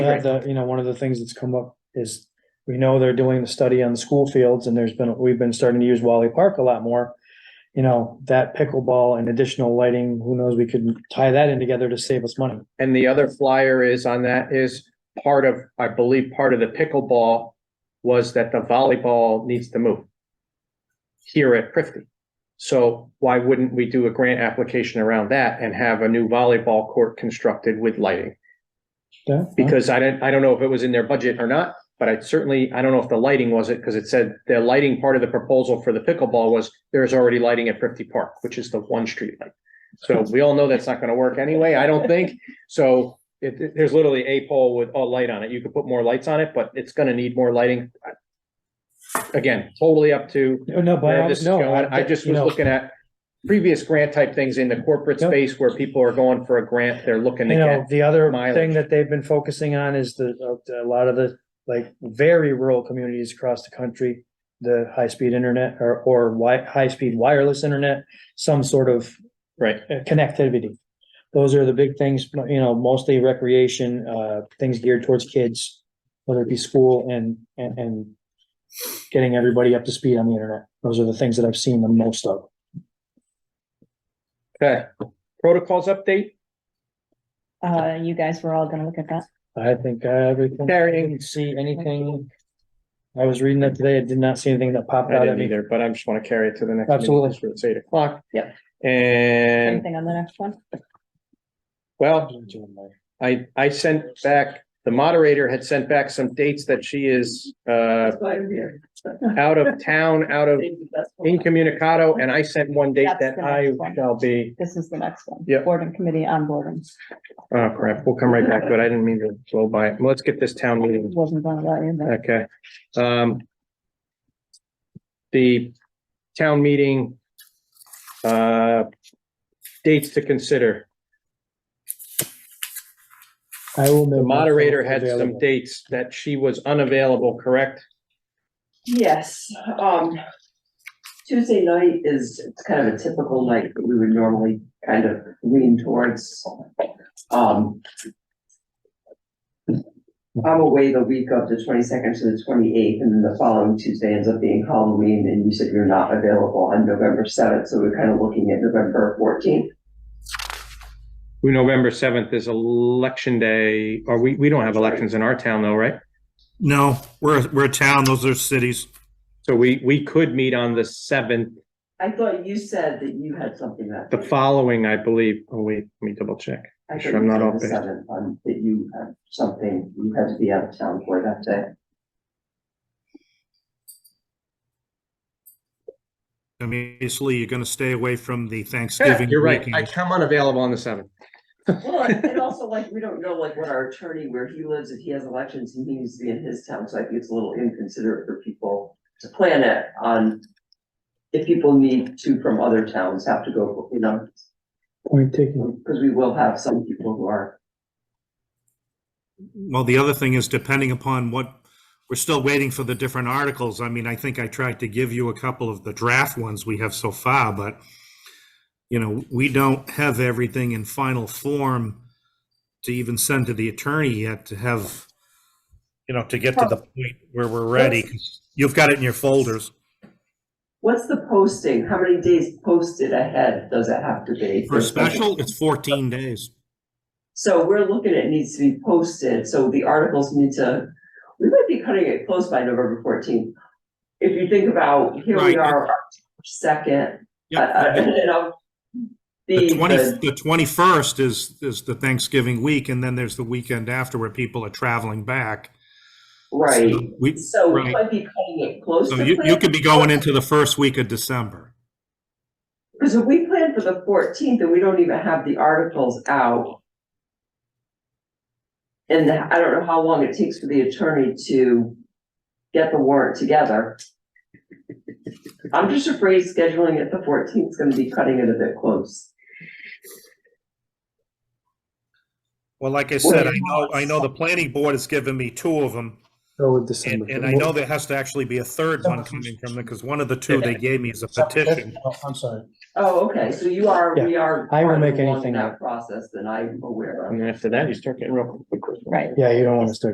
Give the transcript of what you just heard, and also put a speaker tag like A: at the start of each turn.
A: Yeah, the, you know, one of the things that's come up is, we know they're doing the study on the school fields and there's been, we've been starting to use Wally Park a lot more. You know, that pickleball and additional lighting, who knows, we could tie that in together to save us money.
B: And the other flyer is on that is part of, I believe, part of the pickleball was that the volleyball needs to move here at Prifty. So why wouldn't we do a grant application around that and have a new volleyball court constructed with lighting?
A: Yeah,
B: Because I don't, I don't know if it was in their budget or not, but I certainly, I don't know if the lighting was it, because it said the lighting part of the proposal for the pickleball was there's already lighting at Prifty Park, which is the one street light. So we all know that's not gonna work anyway, I don't think. So it, it- there's literally a pole with a light on it. You could put more lights on it, but it's gonna need more lighting. Again, totally up to
A: Oh, No, No, but,
B: where
A: I-
B: this is
A: no.
B: going. I just
A: you
B: was
A: know,
B: looking at previous grant type things in the corporate
A: Yep.
B: space where people are going for a grant, they're looking to
A: You know,
B: get.
A: the other thing
B: mileage.
A: that they've been focusing on is the, uh, a lot of the, like, very rural communities across the country. The high-speed internet or, or wi- high-speed wireless internet, some sort of
B: Right.
A: uh, connectivity. Those are the big things, you know, mostly recreation, uh, things geared towards kids, whether it be school and, and, and getting everybody up to speed on the internet. Those are the things that I've seen the most of.
B: Okay, protocols update,
C: Uh, you guys were all gonna look at that.
A: I think uh, everything, I
B: Carrying.
A: didn't see anything. I was reading that today. I did not see anything that popped
B: I
A: out at
B: didn't
A: me.
B: either, but I'm just wanna carry it to the next. meeting,
A: Absolutely.
B: so It's eight o'clock.
C: Yep.
B: And,
C: Anything on the next one?
B: well, I, I sent back, the moderator had sent back some dates that she is, uh, out of town, out of incommunicado, and I sent one date that
C: That's the
B: I
C: next one.
B: shall be,
C: This is the next one.
B: Yep.
C: Board and committee on boredom.
B: oh crap, we'll come right back, but I didn't mean to blow by it. Let's get this town meeting,
C: Wasn't done about you, but
B: okay? Um, the town meeting, uh, dates to consider.
A: I will.
B: The moderator had some dates that she was unavailable, correct?
D: Yes, um, Tuesday night is it's kind of a typical night that we would normally kind of lean towards. Um. I'm away the week of the twenty-second to the twenty-eighth, and then the following Tuesday ends up being Halloween, and you said you're not available on November seventh, so we're kind of looking at November fourteenth.
B: Who, November seventh is election day, or we, we don't have elections in our town though, right?
E: No, we're, we're a town, those are cities.
B: So we, we could meet on the seventh,
D: I thought you said that you had something that.
B: the following, I believe. Oh, wait, let me double check.
D: I
B: sure I'm not
D: thought
B: off
D: you said
B: base.
D: the seventh, um, That you had something, you had to be out of town for that day.
E: Obviously, you're gonna stay away from the Thanksgiving
B: You're right. I
E: weekend.
B: come unavailable on the seventh.
D: Well, and and also like, we don't know like what our attorney, where he lives, if he has elections, and he needs to be in his town, so I think it's a little inconsiderate for people to plan it on. If people need to from other towns have to go, you know,
A: Point taken.
D: because we will have some people who are,
E: Well, the other thing is depending upon what, we're still waiting for the different articles. I mean, I think I tried to give you a couple of the draft ones we have so far, but you know, we don't have everything in final form to even send to the attorney yet to have, you know, to get to the point where we're ready. You've got it in your folders.
D: what's the posting? How many days posted ahead does it have to be?
E: For a special, it's 14 days.
D: So we're looking at needs to be posted, so the articles need to, we might be cutting it close by November fourteenth. If you think about, here we
E: Right.
D: are, our second, uh, uh,
E: Yep.
D: you know.
E: The
D: The,
E: twenty,
D: the,
E: the twenty-first is, is the Thanksgiving week, and then there's the weekend after where people are traveling back.
D: right,
E: So We,
D: so we
E: right.
D: might be cutting it close to.
E: so you, you
D: plan-
E: could be going into the first week of December.
D: Because if we plan for the fourteenth and we don't even have the articles out. And I don't know how long it takes for the attorney to get the warrant together. I'm just afraid scheduling it the fourteenth is gonna be cutting it a bit close.
E: Well, like I said, I know, I know the planning board has given me two of them,
A: Go Oh, with
E: and,
A: December.
E: and I know there has to actually be a third one coming from them, because one of the two they gave me is a petition.
A: Oh, I'm sorry.
D: Oh, okay, so you are, we are.
A: I will
D: farther
A: make
D: along in
A: anything
D: That process than I'm aware of.
B: And then after that, you start getting real quick.
C: right.
A: Yeah, you don't want to start